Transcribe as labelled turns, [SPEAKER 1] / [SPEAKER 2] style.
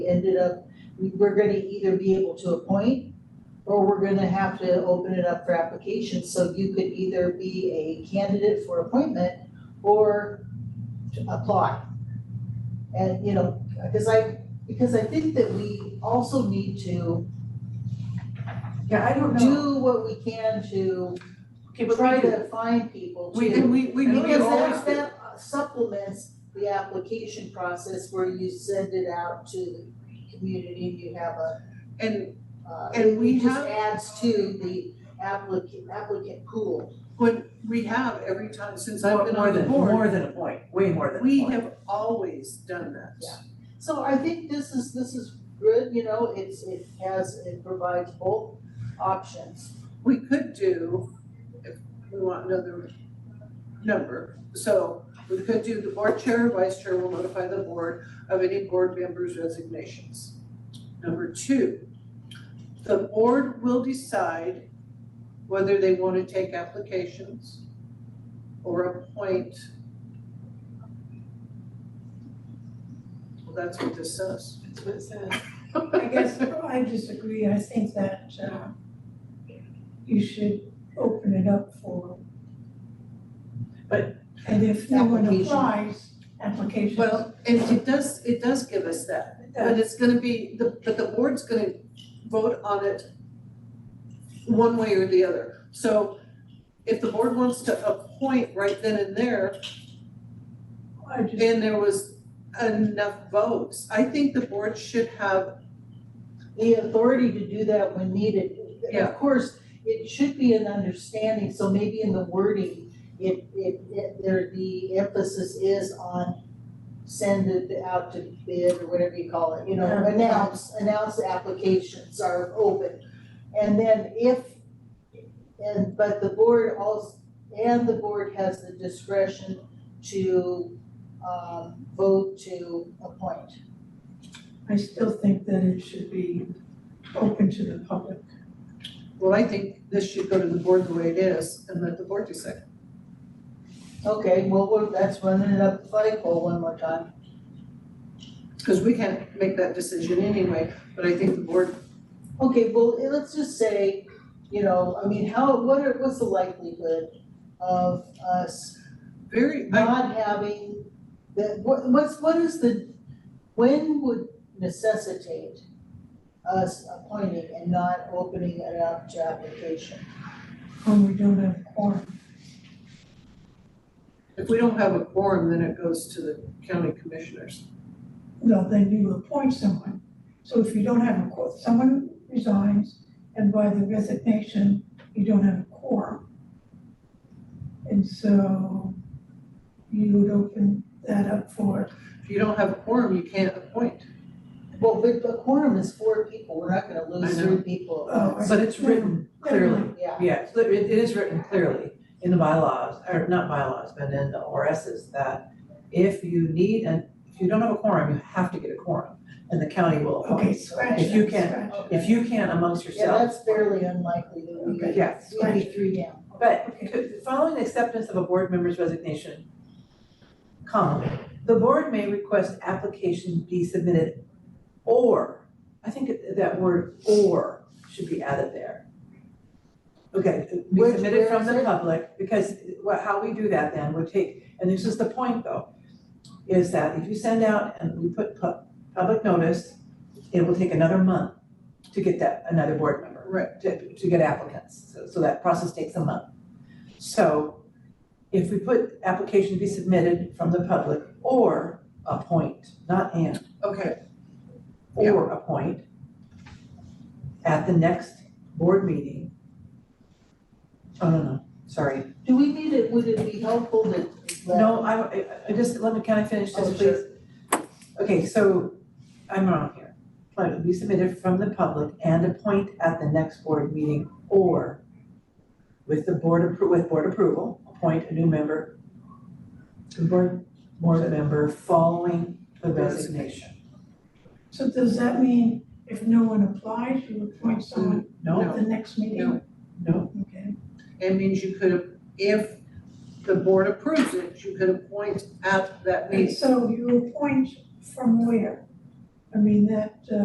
[SPEAKER 1] We ended up, we we're gonna either be able to appoint or we're gonna have to open it up for applications, so you could either be a candidate for appointment or to apply. And, you know, because I, because I think that we also need to
[SPEAKER 2] Yeah, I don't know.
[SPEAKER 1] do what we can to
[SPEAKER 2] Okay, but
[SPEAKER 1] try
[SPEAKER 2] we do,
[SPEAKER 1] to find people to.
[SPEAKER 2] we do, we, we
[SPEAKER 1] Because
[SPEAKER 2] really always
[SPEAKER 1] that
[SPEAKER 2] do.
[SPEAKER 1] that uh, supplements the application process where you send it out to the community and you have a,
[SPEAKER 2] And
[SPEAKER 1] uh,
[SPEAKER 2] And we
[SPEAKER 1] it just
[SPEAKER 2] have-
[SPEAKER 1] adds to the applicant, applicant pool.
[SPEAKER 2] when we have every time since I've
[SPEAKER 3] More
[SPEAKER 2] been
[SPEAKER 3] more
[SPEAKER 2] on the
[SPEAKER 3] than,
[SPEAKER 2] board,
[SPEAKER 3] more than a point, way more than a point.
[SPEAKER 2] we have always done that.
[SPEAKER 1] Yeah. So I think this is, this is good, you know, it's, it has, it provides both options.
[SPEAKER 2] We could do, if we want another number, so we could do the board chair, or vice chair will notify the board of any board members' resignations. Number two, the board will decide whether they want to take applications or appoint. Well, that's what this says.
[SPEAKER 4] That's what it says.
[SPEAKER 5] I guess oh, I disagree, I think that uh you should open it up for.
[SPEAKER 3] But-
[SPEAKER 5] And if no one
[SPEAKER 1] Application.
[SPEAKER 5] applies, applications.
[SPEAKER 2] Well, it, it does, it does give us that. But it's gonna be, the, but the board's gonna vote on it one way or the other. So if the board wants to appoint right then and there,
[SPEAKER 5] I just,
[SPEAKER 2] and there was enough votes, I think the board should have,
[SPEAKER 1] The authority to do that when needed.
[SPEAKER 2] Yeah.
[SPEAKER 1] Of course, it should be an understanding, so maybe in the wording, it, it, it, there, the emphasis is on send it out to bid or whatever you call it, you know,
[SPEAKER 5] Yeah.
[SPEAKER 1] announce, announce the applications are open. And then if, and, but the board also, and the board has the discretion to, um, vote to appoint.
[SPEAKER 5] I still think that it should be open to the public.
[SPEAKER 2] well, I think this should go to the board the way it is and let the board decide.
[SPEAKER 1] Okay, well, we're- that's running it up the flagpole one more time.
[SPEAKER 2] Cause we can't make that decision anyway, but I think the board,
[SPEAKER 1] Okay, well, eh, let's just say, you know, I mean, how, what are, what's the likelihood of us
[SPEAKER 2] very, I,
[SPEAKER 1] not having the, what, what's, what is the, when would necessitate us appointing and not opening it up to application?
[SPEAKER 5] When we don't have quorum,
[SPEAKER 2] if we don't have a quorum, then it goes to the county commissioners.
[SPEAKER 5] well, then you appoint someone. So if you don't have a quorum, someone resigns, and by the resignation, you don't have a quorum. And so you would open that up for,
[SPEAKER 2] If you don't have a quorum, you can't appoint.
[SPEAKER 1] Well, but the quorum is four people, we're not gonna lose
[SPEAKER 2] I know.
[SPEAKER 1] three people.
[SPEAKER 5] Oh, I-
[SPEAKER 3] But it's written clearly,
[SPEAKER 1] Yeah,
[SPEAKER 3] yeah, it's- it it is written clearly in the bylaws, or not bylaws, but in the ORSs that if you need, and if you don't have a quorum, you have to get a quorum, and the county will
[SPEAKER 5] okay,
[SPEAKER 3] appoint.
[SPEAKER 5] scratch
[SPEAKER 3] If you
[SPEAKER 5] that,
[SPEAKER 3] can-
[SPEAKER 5] scratch that.
[SPEAKER 3] If you can amongst
[SPEAKER 1] yeah,
[SPEAKER 3] yourselves.
[SPEAKER 1] that's fairly unlikely that we,
[SPEAKER 5] Okay.
[SPEAKER 3] Yes.
[SPEAKER 1] we'd be three down.
[SPEAKER 3] But could- following the acceptance of a board member's resignation, comma, the board may request applications be submitted or, I think that word or should be added there. Okay, be
[SPEAKER 1] Which-
[SPEAKER 3] submitted from
[SPEAKER 1] where
[SPEAKER 3] the
[SPEAKER 1] is it?
[SPEAKER 3] public, because what, how we do that then would take, and this is the point though, is that if you send out and we put pu- public notice, it will take another month to get that, another board member.
[SPEAKER 2] Right.
[SPEAKER 3] To, to get applicants, so, so that process takes a month. So if we put application to be submitted from the public or appoint, not and,
[SPEAKER 2] Okay,
[SPEAKER 3] or appoint at the next board meeting. Oh, no, no, sorry.
[SPEAKER 1] Do we need it, would it be helpful to let?
[SPEAKER 3] No, I, I- I just, let me, can I finish this,
[SPEAKER 1] Oh,
[SPEAKER 3] please? Okay, so I'm wrong here. Plan to be submitted from the public and appoint at the next board meeting or with the board appro, with board approval, appoint a new member, a board, board member following the resignation.
[SPEAKER 5] So does that mean if no one applies, you appoint someone
[SPEAKER 3] No,
[SPEAKER 5] at the next meeting?
[SPEAKER 3] no,
[SPEAKER 5] Okay,
[SPEAKER 2] It means you could, if the board approves it, you could appoint at that
[SPEAKER 5] and
[SPEAKER 2] meeting.
[SPEAKER 5] so you appoint from where? I mean, that, uh,